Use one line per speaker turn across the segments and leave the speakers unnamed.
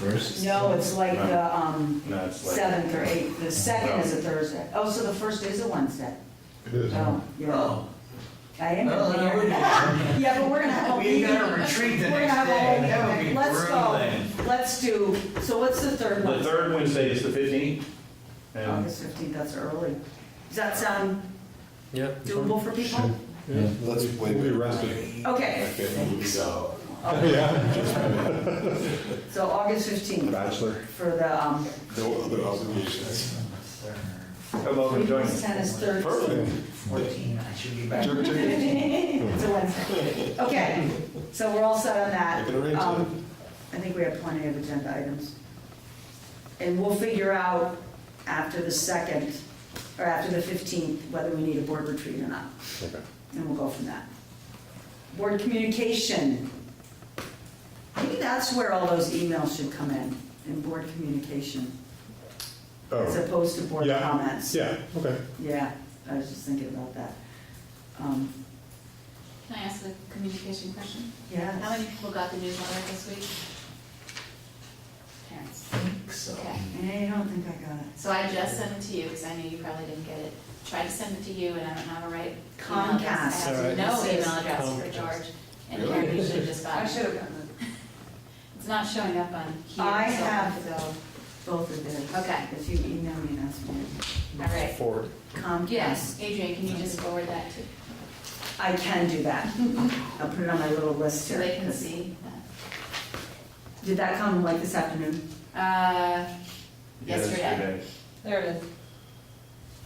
First?
No, it's like the, um,
No, it's like-
seventh or eighth, the second is a Thursday. Oh, so the first is a Wednesday.
It is.
Oh, you're right.
No,
I
no,
am.
Oh, no, we
here.
didn't.
Yeah, but we're gonna have a
We
meeting.
gotta retreat the
We're gonna
next
have a whole,
day. That would be
let's
grueling.
go, let's do, so what's the third
The
one?
third Wednesday is the 15th, and
August fifteenth, that's early. Does that sound
Yeah.
doable for people?
Yeah.
Let's
We'll
wait.
be rested.
Okay,
So,
so August fifteenth
Bachelor.
for the, um,
No other obligations.
come
Oh,
over and join us.
ten is third.
Perfect.
fourteen, I should be back.
Jerk chicken.
It's a Wednesday. Okay, so we're all set on that.
I can arrange
Um, I think we have plenty of agenda items. And we'll figure out after the second, or after the 15th, whether we need a board retreat or not.
Okay.
And we'll go from that. Board communication. Maybe that's where all those emails should come in, in board communication, as
Oh,
opposed to board
Yeah.
comments.
yeah, okay.
Yeah, I was just thinking about that. Um,
Can I ask a communication question?
Yes.
How many people got the newsletter this week? Parents.
So,
Okay.
I don't think I got it.
So I just sent it to you because I knew you probably didn't get it. Tried to send it to you and I don't have a right email address.
Comcast.
I have
All
no
right.
email address for
Comcast.
George. And
Really?
Karen, you should have just got it.
have gotten
It's not showing up on here.
I
so
have-
to go.
both of these.
Okay.
If you email me, that's fine.
All right.
Forward.
Comcast.
Yes, Adrian, can you just forward that to,
I can do that. I'll put it on my little list
so
here.
they can see?
Did that come like this afternoon?
that? Uh, yesterday.
There it is.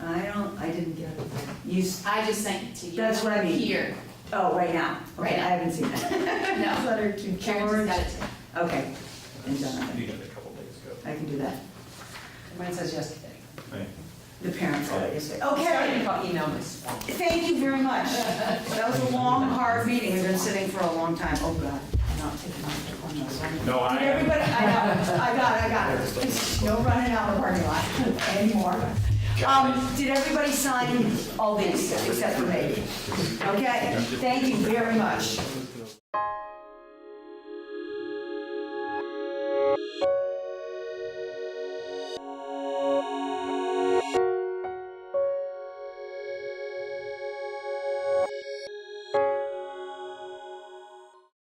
I don't, I didn't get it. You, s-
I just sent it to you.
That's what I mean.
Here.
oh, right now.
Right
Okay, I
now.
haven't seen that.
No.
Letter to
Karen just got
George.
it to
Okay, and Jonathan.
You got it a couple days ago.
I can do that.
Mine says yesterday.
Right.
The parents are
Right.
obviously.
Sorry
Okay,
about email this.
thank you very much. That was a long, hard meeting. We've been sitting for a long time. Oh, God, I'm not taking my phone, no, sorry.
No, I
Did everybody, I got it, I got it, I got it. No running out of the parking lot anymore. Um, did everybody sign all these except for me? Okay, thank you very much.